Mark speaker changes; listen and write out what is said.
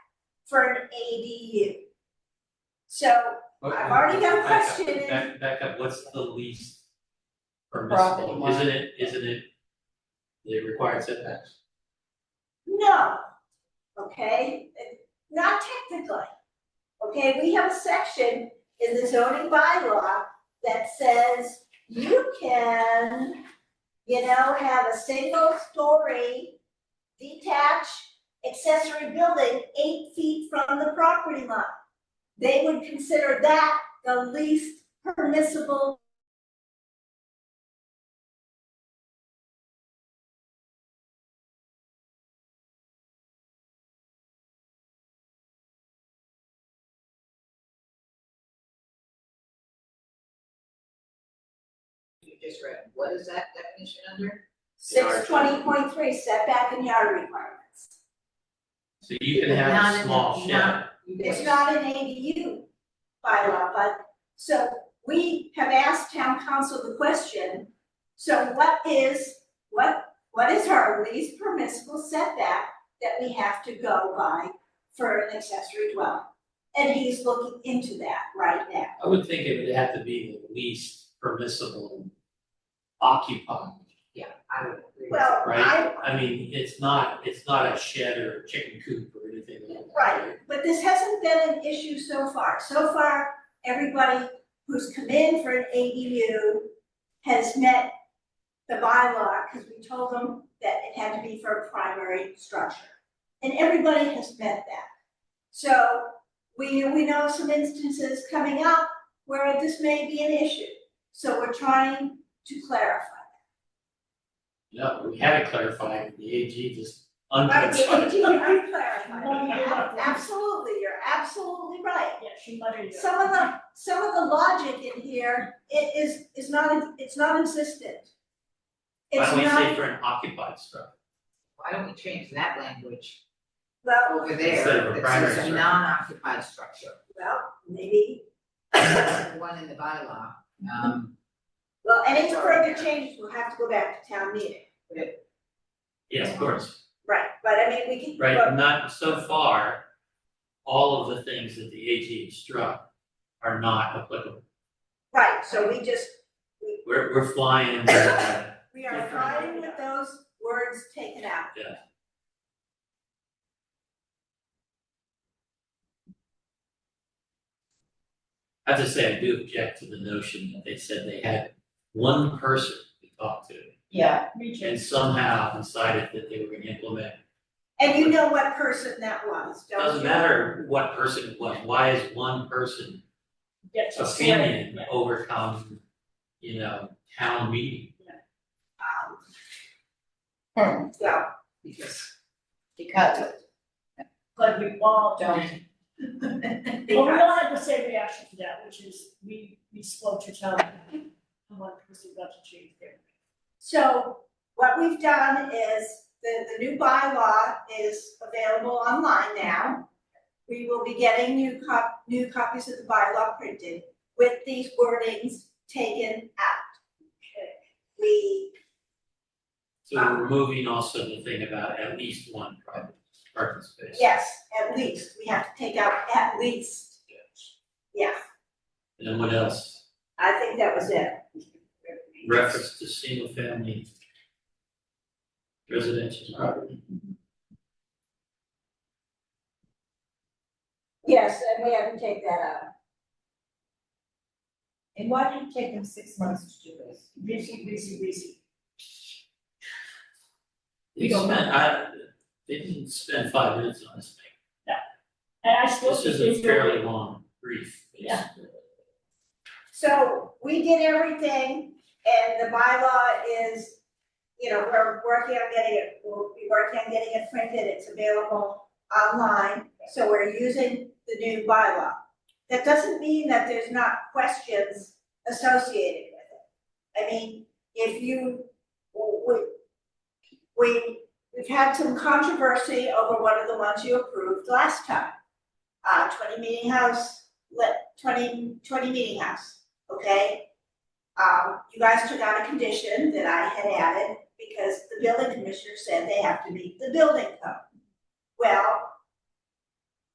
Speaker 1: for an ADU. So
Speaker 2: But-
Speaker 1: I've already got a
Speaker 2: Back up,
Speaker 1: question.
Speaker 2: Back, back up, what's the least
Speaker 3: Property
Speaker 2: permissible,
Speaker 3: line.
Speaker 2: isn't it, isn't it the required setbacks?
Speaker 1: No, okay, not technically. Okay, we have a section in the zoning bylaw that says you can, you know, have a single story detached accessory building eight feet from the property line. They would consider that the least permissible
Speaker 3: you just read, what is that definition under?
Speaker 1: six twenty point three setback and yard requirements.
Speaker 2: So you can have
Speaker 3: Not
Speaker 2: a
Speaker 3: in
Speaker 2: small
Speaker 3: the-
Speaker 2: shed,
Speaker 1: It's not an ADU bylaw, but, so we have asked town council the question, so what is, what, what is our least permissible setback that we have to go by for an accessory dwelling? And he's looking into that right now.
Speaker 2: I would think it would have to be the least permissible occupied,
Speaker 3: I would agree.
Speaker 1: Well, I,
Speaker 2: right? I mean, it's not, it's not a shed or a chicken coop or anything like that.
Speaker 1: right, but this hasn't been an issue so far. So far, everybody who's come in for an ADU has met the bylaw, because we told them that it had to be for a primary structure. And everybody has met that. So we, we know some instances coming up where this may be an issue. So we're trying to clarify.
Speaker 2: No, we had it clarified, the AG just
Speaker 1: Right,
Speaker 2: unclarified.
Speaker 1: you are clarifying.
Speaker 4: No, you're not.
Speaker 1: Absolutely, you're absolutely right.
Speaker 4: Yeah, she muttered it.
Speaker 1: Some of the, some of the logic in here, it is, is not, it's not insistent.
Speaker 2: Why
Speaker 1: It's
Speaker 2: don't we say
Speaker 1: not,
Speaker 2: for an occupied structure?
Speaker 3: Why don't we change that language
Speaker 1: well,
Speaker 3: over there,
Speaker 2: Instead of a
Speaker 3: that
Speaker 2: primary
Speaker 3: says a
Speaker 2: structure.
Speaker 3: non-occupied structure,
Speaker 1: well, maybe,
Speaker 3: That's the one in the bylaw, um,
Speaker 1: well, any further changes will have to go back to town meeting.
Speaker 2: Yeah, of course.
Speaker 1: Right, but I mean, we can,
Speaker 2: Right,
Speaker 1: but,
Speaker 2: not, so far, all of the things that the AG struck are not applicable.
Speaker 1: right, so we just,
Speaker 2: We're, we're flying in the,
Speaker 1: we are fine with those words taken out.
Speaker 2: I have to say, I do object to the notion that they said they had one person to talk to,
Speaker 4: Yeah, me
Speaker 2: and somehow decided that they were gonna implement.
Speaker 1: And you know what person that was, don't you?
Speaker 2: Doesn't matter what person it was, why is one person
Speaker 4: Gets a
Speaker 2: opinion
Speaker 4: Yeah.
Speaker 2: overcome, you know, town meeting?
Speaker 1: Um, So,
Speaker 3: because.
Speaker 5: Because.
Speaker 4: But we all don't. Well, we all had the same reaction to that, which is we, we spoke to town. meeting, And one person got to change their.
Speaker 1: so what we've done is, the, the new bylaw is available online now. We will be getting new cop, new copies of the bylaw printed with these wordings taken out. We,
Speaker 2: So we're removing also the thing about at least one private parking space.
Speaker 1: yes, at least, we have to take out at least, yeah,
Speaker 2: And then what else?
Speaker 1: I think that was it.
Speaker 2: reference to single family residential property.
Speaker 1: Yes, and we had to take that out.
Speaker 5: And why did it take them six months to do this?
Speaker 4: Busy, busy, busy.
Speaker 2: They spent, I, they didn't spend five minutes on this thing.
Speaker 4: And I still.
Speaker 2: This
Speaker 4: think
Speaker 2: is a
Speaker 4: they really-
Speaker 2: fairly long brief.
Speaker 4: Yeah.
Speaker 1: So we did everything and the bylaw is, you know, we're working on getting it, we'll be working on getting it printed, it's available online. So we're using the new bylaw. That doesn't mean that there's not questions associated with it. I mean, if you, we, we, we've had some controversy over one of the ones you approved last time. Uh, twenty meeting house, let, twenty, twenty meeting house okay? Um, you guys took out a condition that I had added because the building commissioner said they have to meet the building code. Well,